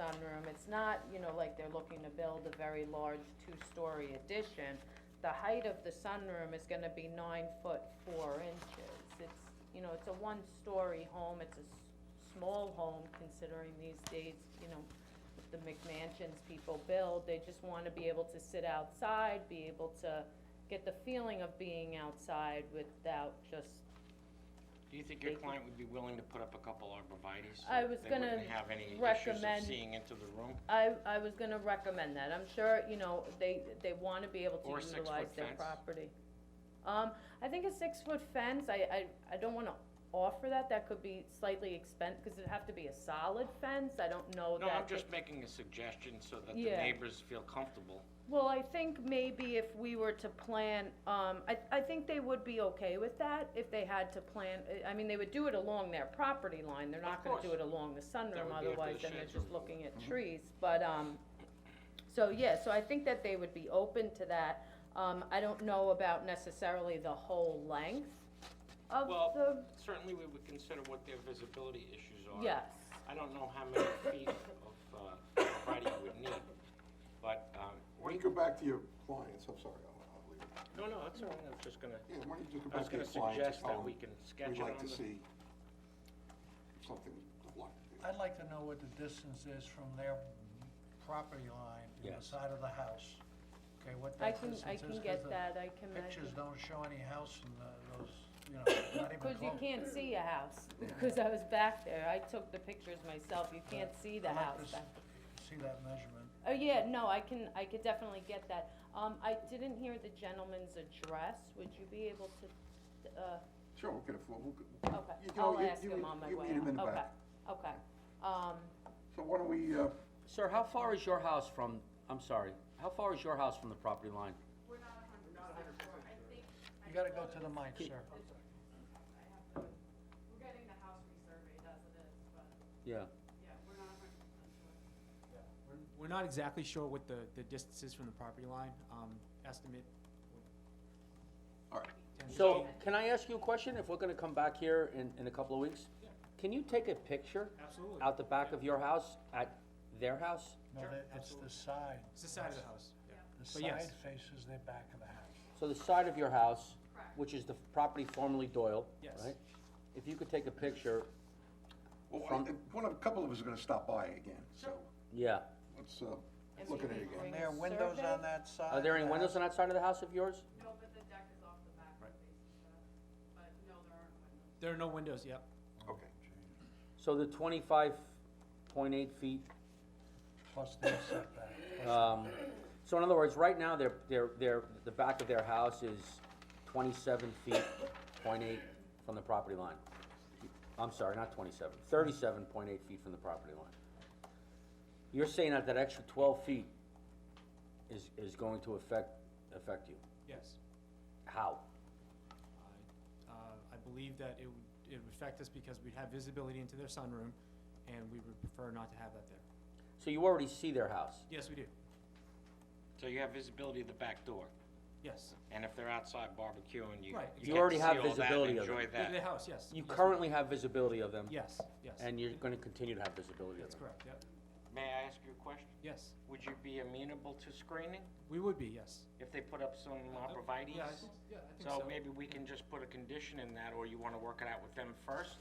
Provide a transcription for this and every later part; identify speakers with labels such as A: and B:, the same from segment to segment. A: sunroom. It's not, you know, like they're looking to build a very large two-story addition. The height of the sunroom is gonna be nine foot four inches. It's, you know, it's a one-story home, it's a s- small home considering these days, you know, the McMansions people build, they just wanna be able to sit outside, be able to get the feeling of being outside without just,
B: Do you think your
A: Thank you.
B: client would be willing to put up a couple arborvitae's? so
A: I was
B: They
A: gonna
B: wouldn't have any issues of
A: recommend-
B: seeing into the room?
A: I, I was gonna recommend that, I'm sure, you know, they, they wanna be able
B: Or a
A: to
B: six-foot
A: utilize their
B: fence.
A: property. Um, I think a six-foot fence, I, I, I don't wanna offer that, that could be slightly expensive, cause it'd have to be a solid fence, I don't know that.
B: No, I'm
A: they-
B: just making a suggestion so that the
A: Yeah.
B: neighbors feel comfortable.
A: Well, I think maybe if we were to plan, um, I, I think they would be okay with that if they had to plan, I mean, they would do it along their property line, they're not
B: Of
A: gonna do
B: course.
A: it along the
B: That would
A: sunroom,
B: be after
A: otherwise
B: the Mm-hmm.
A: then they're
B: shades
A: just
B: are
A: looking at trees, but, um, so, yeah, so I think that they would be open to that, um, I don't know about necessarily the whole length of
B: Well,
A: the,
B: Certainly, we would consider what their visibility issues are.
A: yes,
B: I don't know how many feet of uh, arborvitae you would need, but, um,
C: Why don't you go back to your clients, I'm sorry, I'll, I'll leave it.
B: no, no, that's all right, I was just gonna,
C: Yeah, why don't you just go
B: I was
C: back to
B: gonna
C: your clients
B: suggest
C: and tell
B: that we
C: them,
B: can sketch
C: we'd
B: it on
C: like to
B: the,
C: see something like this.
D: I'd like to know what the distance is from their property line to the
B: Yes.
D: side of the house. Okay, what
A: I
D: that
A: can,
D: distance
A: I
D: is.
A: can
D: 'cause
A: get
D: the
A: that, I can measure.
D: Pictures don't show any house from the- those, you know, not even
A: Cause
D: close.
A: you can't see a house, cause I was back there, I took the pictures myself, you can't see the
D: I'd like
A: house
D: to s-
A: back.
D: See that measurement.
A: Oh, yeah, no, I can, I could definitely get that, um, I didn't hear the gentleman's address, would you be able to, uh,
C: Sure, we'll get a, floor, we'll, g-
A: okay,
C: You know,
A: I'll
C: you-
A: ask
C: you
A: him
C: meet-
A: on my
C: you
A: way
C: meet him
A: out.
C: in the
A: okay,
C: back.
A: okay, um,
C: so why don't we, uh,
E: Sir, how far is your house from, I'm sorry, how far is your house from the property line?
D: You gotta go to the mic, sir.
F: We're getting the house resurveyed as it is, but
E: Yeah.
F: yeah, we're not a hundred percent sure.
G: We're- We're not exactly sure what the, the distance is from the property line, um, estimate.
C: all right,
E: So, can I ask you a question, if we're gonna come back here in, in a couple of weeks? Can you take a picture
G: Absolutely.
E: out the back of your house at their house?
D: No,
G: Sure,
D: that- it's the side.
G: It's the side of the house, yeah.
D: The
G: But yes.
D: side faces the back of the house.
E: So the side of your house, which is the property formerly Doyle,
G: Yes.
E: right? If you could take a picture,
C: well, I-
E: From-
C: I- one of, a couple of us are gonna stop by again, so,
E: yeah.
C: let's, uh,
A: And
C: look
A: we
C: at it
A: can
C: again.
A: bring-
D: And there are windows
A: survey?
D: on that side.
E: Are there any
D: of the
E: windows on
D: house?
E: that side of the house of yours?
F: No, but the deck is off the back of the basement, but no, there aren't windows.
G: There are no windows, yep.
C: Okay,
E: So the twenty-five point eight feet
D: Plus the setback.
E: Um, so in other words, right now, their, their, their, the back of their house is twenty-seven feet, point eight from the property line. I'm sorry, not 27, 37.8 feet from the property line. You're saying that that extra twelve feet is, is going to affect, affect you?
G: Yes.
E: How?
G: I- uh, I believe that it would, it would affect us because we'd have visibility into their sunroom, and we would prefer not to have that there.
E: So you already see their house?
G: Yes, we do,
B: so you have visibility of the back door,
G: yes.
B: and if they're outside barbecuing, you,
G: Right.
B: you
E: You
B: get to
E: already
B: see
E: have
B: all that and
E: visibility of it.
B: enjoy
G: The- The
B: that.
G: house, yes.
E: You
G: Yes, we-
E: currently have visibility of them?
G: Yes, yes.
E: And you're gonna continue to have visibility of
G: That's
E: them?
G: correct, yep,
B: May I ask you a question?
G: yes.
B: Would you be amenable to screening
G: We would be, yes.
B: if they put up some arborvitae's?
G: Yeah, I think- yeah, I think
B: So maybe we can just put a condition in that, or you wanna work it out with them first?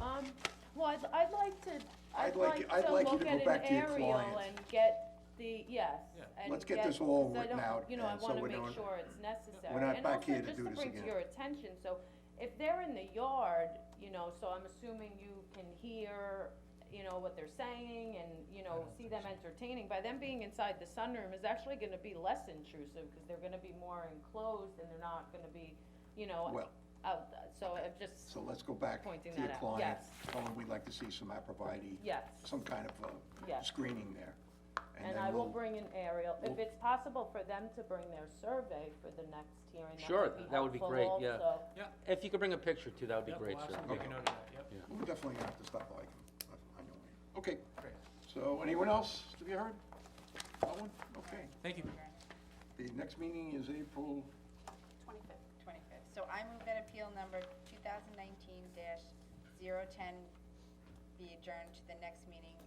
A: Um, well, I'd, I'd like to, I'd
C: I'd like you- I'd
A: like to
C: like you
A: look
C: to go
A: at an
C: back to your
A: aerial
C: clients.
A: and get the, yes,
G: Yeah.
A: and
C: Let's get this all
A: 'cause I
C: written
A: don't-
C: out,
A: You know, I
C: and so
A: wanna
C: we
A: make
C: don't-
A: sure it's necessary.
C: We're not
A: And
C: back
A: also,
C: here to
A: just
C: do this
A: bring to
C: again.
A: your attention, so if they're in the yard, you know, so I'm assuming you can hear, you know, what they're saying and, you know, see them entertaining, by them being inside the sunroom is actually gonna be less intrusive, cause they're gonna be more enclosed and they're not gonna be, you know,
C: well,
A: out, so I'm just,
C: so let's go back
A: Pointing
C: to your
A: that out,
C: client,
A: yes.
C: tell them we'd like to see some arborvitae,
A: yes.
C: some kind of, uh,
A: Yes.
C: screening there.
A: And
C: then
A: I will
C: we'll-
A: bring an aerial, if
E: we'll-
A: it's possible for them to bring their survey for the next hearing,
E: Sure,
A: that would be
E: that would be great,
A: helpful
E: yeah.
A: also.
E: If you could bring a picture too, that would be
G: Yep,
E: great,
G: we'll
E: sir.
G: absolutely make a
C: Okay.
G: note of that, yep.
C: We're definitely gonna have to stop by, I know. Okay,
G: Great.
C: so anyone else to be heard? That one? Okay.
G: Thank you.
C: The next meeting is April,
H: Twenty-fifth. Twenty-fifth. So I move that appeal number two thousand nineteen dash zero ten be adjourned to the next meeting